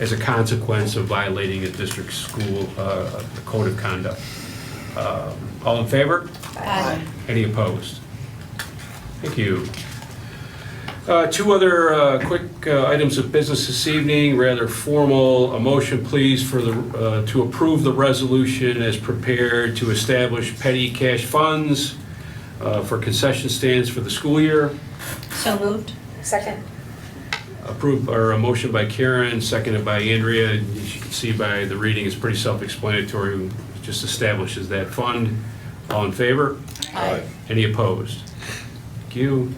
as a consequence of violating the district school uh, code of conduct. Um, All in favor? Aye. Any opposed? Thank you. Uh, Two other uh, quick uh, items of business this evening, rather formal. A motion, please, for the, uh, to approve the resolution as prepared to establish petty cash funds uh, for concession stands for the school year. So moved. Second. Approved, or a uh, motion by Karen, seconded by Andrea. As you can see by the reading, it's pretty self-explanatory. It Just establishes that fund. All in favor? Aye. Any opposed? Thank you.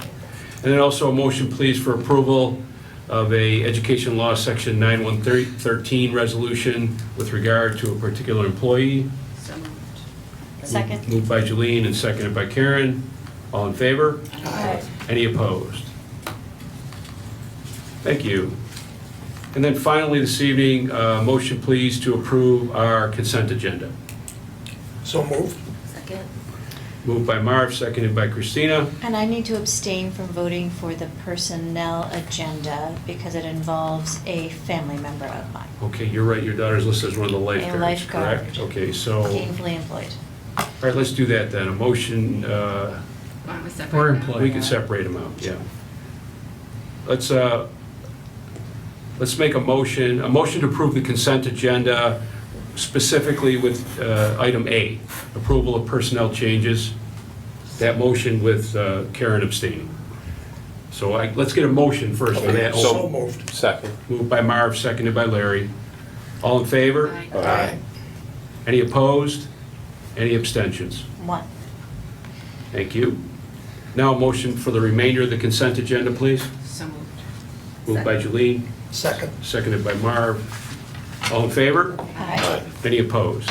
And then also a motion, please, for approval of a Education Law Section 9113 resolution with regard to a particular employee. So moved. Second. Moved by Jolene and seconded by Karen. All in favor? Aye. Any opposed? Thank you. And then finally, this evening, uh, motion, please, to approve our consent agenda. So moved. Second. Moved by Marv, seconded by Christina. And I need to abstain from voting for the personnel agenda because it involves a family member of mine, Okay, you're right, your daughter's listed as one of the lifeguards, correct? lifeguard. Okay, so, all gainfully employed. right, let's do that then, a motion, uh, Why don't we separate We're now? employed. we can separate them out, yeah. Let's, uh, let's make a motion, a motion to approve the consent agenda specifically with uh, item A, approval of personnel changes, that motion with uh, Karen abstaining. So I, let's get a motion first on that. Oh, So moved. Second. Moved by Marv, seconded by Larry. All in favor? Aye. Aye. Any opposed? Any abstentions? One. Thank you. Now a motion for the remainder of the consent agenda, please. So moved. Moved by Jolene, Second. seconded by Marv. All in favor? Aye. Any opposed?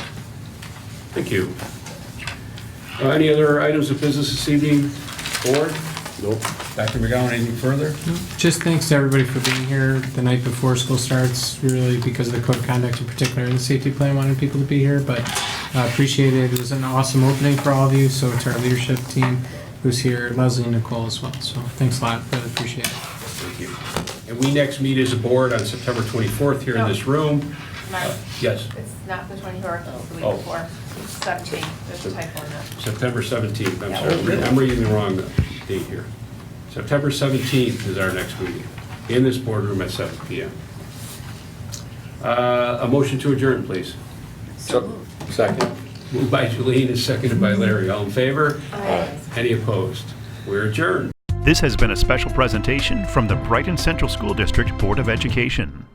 Thank you. Uh, Any other items of business this evening? Board? Nope. Dr. McGowan, anything further? Just thanks to everybody for being here the night before school starts, really because of the code of conduct in particular, the safety plan wanted people to be here, but uh, appreciate it. It was an awesome opening for all of you, so to our leadership team who's here, Leslie and Nicole as well, so thanks a lot, really appreciate it. Thank you. And we next meet as a board on September 24th here in this room. Mark, Yes, it's not the 24th, it's the Oh. week before, It's 17, there's a typo in that. September 17th, I'm sorry, I'm reading- I'm reading the wrong date here. September 17th is our next meeting, in this boardroom at 7 PM. Uh, A motion to adjourn, please. So Second. Moved by Jolene and seconded by Larry. All in favor? Aye. Any opposed? We're adjourned. This has been a special presentation from the Brighton Central School District Board of Education.